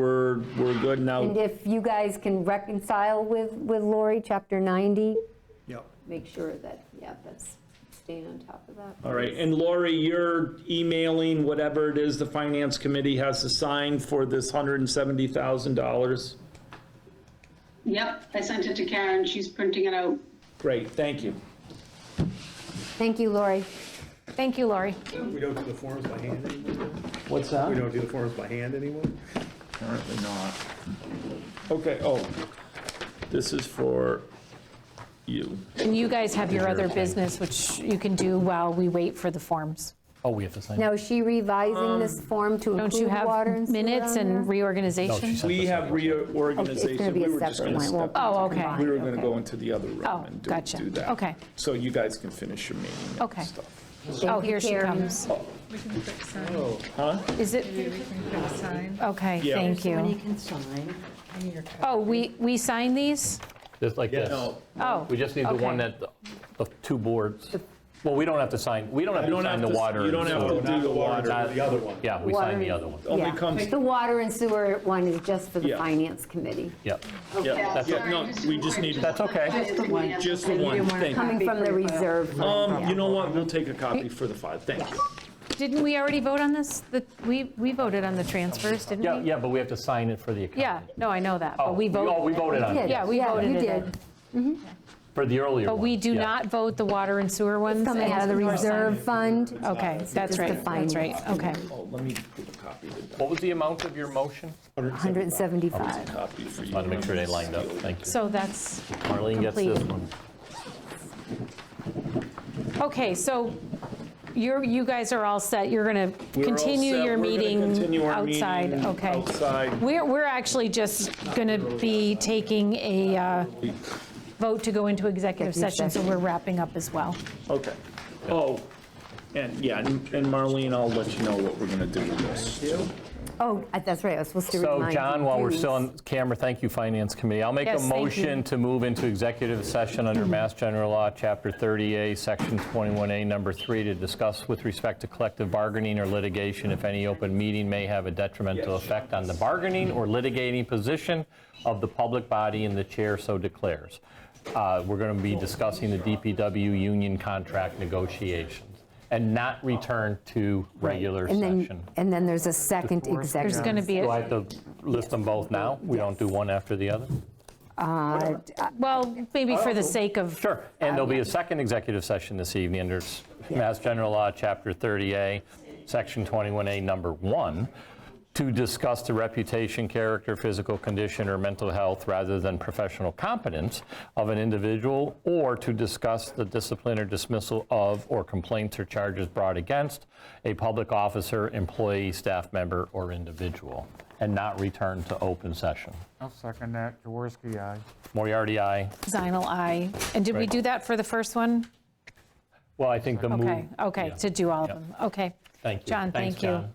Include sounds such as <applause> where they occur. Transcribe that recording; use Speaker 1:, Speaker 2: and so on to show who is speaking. Speaker 1: we're, we're good
Speaker 2: And
Speaker 1: now.
Speaker 2: if you guys can reconcile with, with Lori, Chapter 90,
Speaker 3: Yep.
Speaker 2: make sure that, yeah, that's, staying on top of that.
Speaker 1: All right, and Lori, you're emailing whatever it is the finance committee has to sign for this $170,000.
Speaker 4: Yep, I sent it to Karen, she's printing it out.
Speaker 1: Great, thank you.
Speaker 2: Thank you, Lori.
Speaker 5: Thank you, Lori.
Speaker 3: We don't do the forms by hand anymore?
Speaker 1: What's that?
Speaker 3: We don't do the forms by hand anymore?
Speaker 1: Apparently not. Okay, oh, this is for you.
Speaker 5: And you guys have your other business, which you can do while we wait for the forms.
Speaker 6: Oh, we have to sign.
Speaker 2: Now, is she revising this
Speaker 6: Um,
Speaker 2: form to
Speaker 5: Don't you
Speaker 2: include
Speaker 5: have
Speaker 2: water and sewer
Speaker 5: minutes
Speaker 2: on
Speaker 5: and
Speaker 2: there?
Speaker 6: No, Oh, she
Speaker 5: reorganization?
Speaker 6: sent
Speaker 1: We
Speaker 6: this
Speaker 1: have
Speaker 6: over.
Speaker 2: It's going
Speaker 1: reorganization.
Speaker 2: to be
Speaker 1: We
Speaker 2: a
Speaker 1: were just
Speaker 2: separate
Speaker 1: gonna
Speaker 2: one. It won't
Speaker 1: step-
Speaker 2: be
Speaker 5: Oh, okay.
Speaker 2: combined,
Speaker 1: We were going to
Speaker 2: okay.
Speaker 1: go into the other room
Speaker 5: Oh,
Speaker 1: and do-
Speaker 5: gotcha.
Speaker 1: do that.
Speaker 5: Okay.
Speaker 1: So you guys can finish your meeting
Speaker 5: Okay.
Speaker 1: and stuff.
Speaker 5: Oh,
Speaker 2: Thank you,
Speaker 5: here she
Speaker 2: Karen.
Speaker 5: comes.
Speaker 7: We can put sign,
Speaker 5: Is it,
Speaker 7: maybe we can put sign.
Speaker 5: okay,
Speaker 1: Yeah.
Speaker 5: thank
Speaker 8: Somebody
Speaker 5: you.
Speaker 8: can sign.
Speaker 7: in your cup.
Speaker 5: Oh, we, we sign these?
Speaker 6: Just like this.
Speaker 5: Oh.
Speaker 6: We just need the one
Speaker 5: okay.
Speaker 6: that, the two boards. Well, we don't have to sign, we don't have
Speaker 1: You
Speaker 6: to
Speaker 1: don't
Speaker 6: sign the
Speaker 1: have to-
Speaker 6: water.
Speaker 1: you don't
Speaker 6: and
Speaker 1: have
Speaker 6: sewer.
Speaker 1: to do the water.
Speaker 3: The other one.
Speaker 6: Yeah, we
Speaker 2: Water
Speaker 6: sign the
Speaker 2: and-
Speaker 6: other one.
Speaker 1: Only
Speaker 2: Yeah.
Speaker 1: comes-
Speaker 2: The water and sewer one is just for the
Speaker 1: Yeah.
Speaker 2: finance committee,
Speaker 6: Yeah.
Speaker 1: Yeah,
Speaker 4: Yeah,
Speaker 6: that's
Speaker 4: sorry,
Speaker 1: yeah, no, we just
Speaker 4: I
Speaker 1: need-
Speaker 4: just-
Speaker 6: That's okay.
Speaker 4: Just the
Speaker 8: one.
Speaker 1: Just the
Speaker 8: You
Speaker 1: one,
Speaker 8: didn't want to
Speaker 1: thank
Speaker 8: come
Speaker 1: you.
Speaker 2: coming from the reserve fund.
Speaker 1: Um, you know what, we'll take a copy for the five, thank you.
Speaker 5: Didn't we already vote on this? The- We, we voted on the transfers, didn't we?
Speaker 6: Yeah, yeah, but we have to sign it for the account.
Speaker 5: Yeah, no, I know that,
Speaker 6: Oh,
Speaker 5: but we
Speaker 6: Oh, we
Speaker 5: voted.
Speaker 6: voted on
Speaker 2: did.
Speaker 6: it,
Speaker 5: Yeah,
Speaker 6: yes,
Speaker 5: we
Speaker 2: Yeah,
Speaker 5: voted
Speaker 2: you
Speaker 5: it
Speaker 2: did.
Speaker 5: in.
Speaker 6: for the earlier one.
Speaker 5: But we do
Speaker 6: yeah.
Speaker 5: not vote the water and sewer ones.
Speaker 2: Coming
Speaker 5: and
Speaker 2: out of the
Speaker 5: nor sign
Speaker 2: reserve
Speaker 5: it.
Speaker 2: fund.
Speaker 5: Okay, that's
Speaker 2: the
Speaker 5: right, that's
Speaker 2: finance
Speaker 5: right, okay.
Speaker 1: Oh, let me give a copy to that
Speaker 6: What was the amount of your motion?
Speaker 2: 175.
Speaker 1: copy for you.
Speaker 6: I want to make sure they lined up, thank you.
Speaker 5: So that's
Speaker 6: Marlene gets this
Speaker 5: complete.
Speaker 6: one.
Speaker 5: Okay, so you're, you guys are all set, you're going to
Speaker 1: We're all
Speaker 5: continue
Speaker 1: set.
Speaker 5: your
Speaker 1: We're gonna
Speaker 5: meeting
Speaker 1: continue our meeting
Speaker 5: outside, okay?
Speaker 1: Outside.
Speaker 5: We're, we're actually just going to be taking a uh, vote to go into executive
Speaker 2: Executive
Speaker 5: session, so
Speaker 2: session.
Speaker 5: we're wrapping up as well.
Speaker 1: Okay. Oh, and yeah, and and Marlene, I'll let you know what we're gonna do with this.
Speaker 2: Oh, that's right, I was supposed to remind
Speaker 6: So
Speaker 2: you.
Speaker 6: John, while we're
Speaker 2: Denise.
Speaker 6: still on camera, thank you, Finance Committee. I'll make a
Speaker 5: Yes, thank you.
Speaker 6: motion to move into executive session
Speaker 2: <clears throat>
Speaker 6: under Mass General Law, Chapter 30A, Section 21A, Number 3, to discuss with respect to collective bargaining or litigation if any open meeting may have a detrimental effect on the bargaining or litigating position of the public body and the chair so declares. Uh, We're going to be discussing the DPW union contract negotiations and not return to regular
Speaker 2: And then-
Speaker 6: session.
Speaker 2: And then there's a second executive.
Speaker 5: There's going to be,
Speaker 6: Do I
Speaker 5: a-
Speaker 6: have to list them both now? We don't do one after the other?
Speaker 5: well, maybe for
Speaker 1: Oh.
Speaker 5: the sake of
Speaker 6: Sure. And there'll be a second executive session this evening under s- Mass General Law, Chapter 30A, Section 21A, Number 1, to discuss the reputation, character, physical condition, or mental health rather than professional competence of an individual, or to discuss the discipline or dismissal of or complaints or charges brought against a public officer, employee, staff member, or individual, and not return to open session.
Speaker 9: I'll second that. Jaworski, aye.
Speaker 6: Moriarty, aye.
Speaker 5: Zinal, aye. And did we
Speaker 6: Right.
Speaker 5: do that for the first one?
Speaker 6: Well, I think the move.
Speaker 5: Okay, okay, to do all of
Speaker 6: Yeah.
Speaker 5: them, okay.
Speaker 6: Thank you.
Speaker 5: John,
Speaker 6: Thanks,
Speaker 5: thank you.
Speaker 6: John.